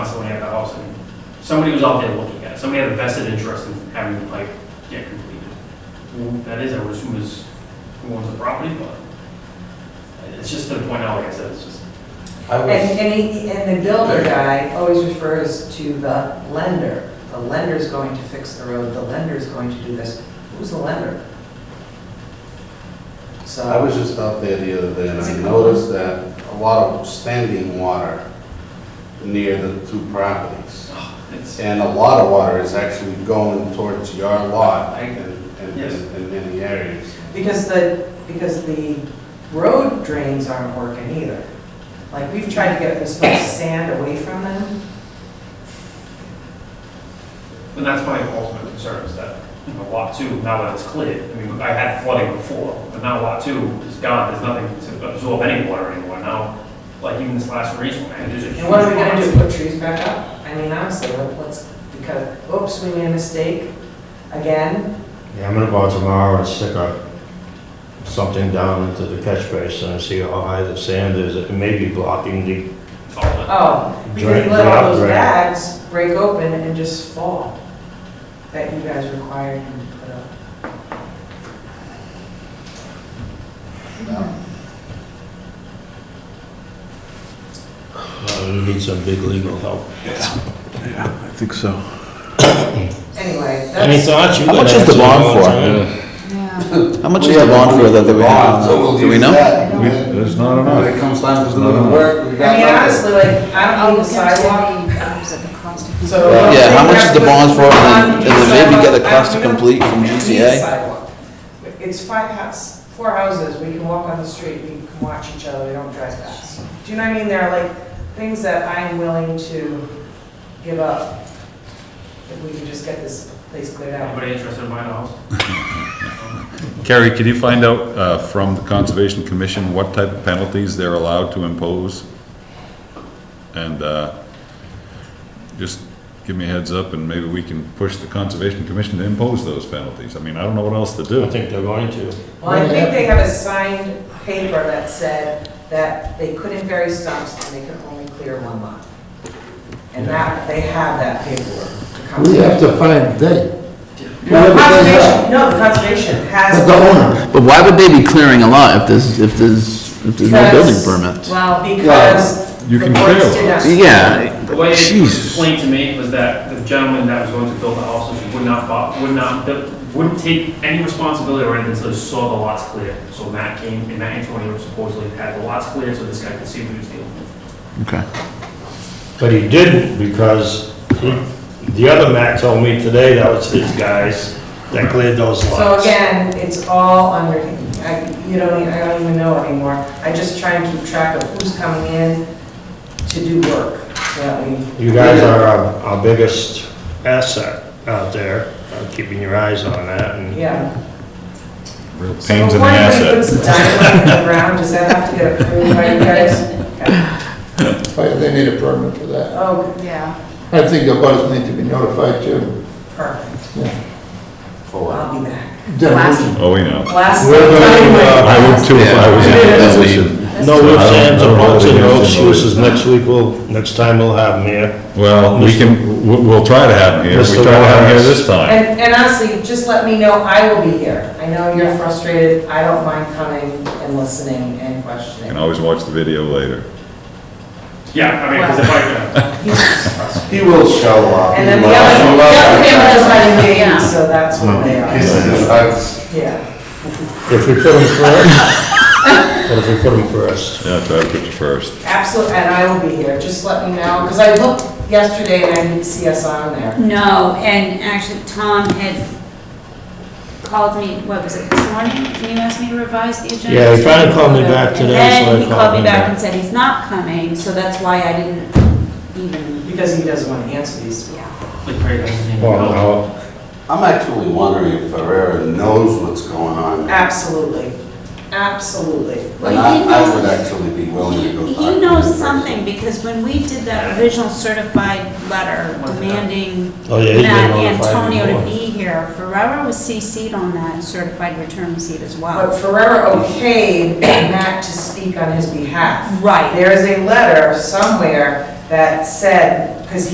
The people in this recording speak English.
somebody was out there looking at it, somebody had a vested interest in having the pipe get completed. Who That is, I would assume is who owns the property, but it's just to the point out, like I said, it's just, I was, And, and he, and the builder guy always refers to the lender. The lender's going to fix the road, the lender's going to do this. Who's the lender? I So, was just out there the other day and Is I it cold? noticed that a lot of standing water near the two properties. ah, it's, And a lot of water is actually going towards your lot I- in, in, yes. in many areas. because the, because the road drains aren't working either. Like, we've tried to get this much sand away from them. but that's my ultimate concern is that, you know, lot two, now that it's cleared, I mean, I had flooding before, but now lot two is gone, there's nothing to absorb any water anymore now. Like even this last recent, man, there's a huge. And what are we gonna do, amount. put trees back up? I mean, honestly, what- what's, because, oops, we made a mistake again. Yeah, I'm gonna go out tomorrow and stick a, something down into the catch basin and see how high the sand is. It may be blocking the It's all done. Oh, because Drain- you let drop all those drain. bags break open and just fall, that you guys required him to put up. Uh, we need some big legal help. I think so. Anyway, Any that's, thoughts? You How much could is the answer bond all for? time. How much is the bond for that that we have? Do we know? There's not enough. When it comes time to No, do the no. work, we I got mean, nothing. honestly, like, I don't Oh, need the the sidewalk, sidewalk. so. Yeah, how much is the bond for, and then- and then maybe get a cost to complete from I don't need a GCA? sidewalk. It's five house, four houses, we can walk on the street, we can watch each other, we don't drive fast. Do you know what I mean? There are like things that I'm willing to give up if we can just get this place cleared out. Anybody interested in buying a house? Carrie, can you find out uh, from the Conservation Commission what type of penalties they're allowed to impose? And uh, just give me a heads up and maybe we can push the Conservation Commission to impose those penalties. I mean, I don't know what else to I do. think they're going to. Well, I think they have a signed paper that said that they couldn't bury stumps and they could only clear one lot. And that, they have that paperwork. the We have conservation- to find they, No, the conservation, no, the conservation has. the owner. But why would they be clearing a lot if there's, if there's, if there's no building Because- permit? Well, because. You the can courts clear did not- Yeah, The way it was Jesus. explained to me was that the gentleman that was going to build the house would not, bo- would not, wouldn't take any responsibility or anything until he saw the lots clear. So Matt came, and Matt Antonio supposedly had the lots clear, so this guy could see what he was dealing with. okay. But he didn't because he- the other Mac told me today that was his guys that cleared those So lots. again, it's all under, I, you don't, e- I don't even know anymore. I just try and keep track of who's coming in to do work, so that we. You guys are our our biggest asset out there, Uh, keeping your eyes on that and Yeah. Real So Pains in the before anybody asset. puts the dynamite in the ground, does that have to get approved by you guys? Oh, They need a permit for that. Oh, Yeah. I think the butters need to be notified too. perfect. For I'll be back. Last- Oh, we know. Last We're gonna, uh, time, I uh, would too if I was in Yeah, that that we- position. no ifs, ands, or buts, and no I don't know. excuses. Next week, we'll, next time we'll have them here. Well, we can, we'll we'll try to have him here. We Mr. try to have him here Lawrence. this time. and, and honestly, just let me know, I will be here. I know you're frustrated, I don't mind coming and listening and You can questioning. always watch the video later. Yeah, I mean, because if I, He will show up. And then the He will other, the show up. other family is not Yeah. engaged, so that's what they are, Kisses and hugs. yeah. If we put them first, what if we put them first? Yeah, try to put you first. Absolutely, and I will be here, just let me know, because I looked yesterday and I didn't see us on there. No, and actually Tom had called me, what was it, this morning? Can you ask me to revise the agenda? Yeah, he finally called me back today, so I And then he called called me him back back. and said he's not coming, so that's why I didn't even, Because he doesn't want to answer these. yeah. like, Craig doesn't even Well, know. no. I'm actually wondering if Ferrera knows what's going on. And Absolutely, absolutely. Well, I he I would knows- actually be willing to go talk to He him knows first. something, because when we did that original certified letter demanding Oh, yeah, he's been Matt notified Antonio to before. be here, Ferrero was CC'd on that certified return receipt as But well. Ferrera okayed Matt to speak on his behalf. Right. There is a letter somewhere that said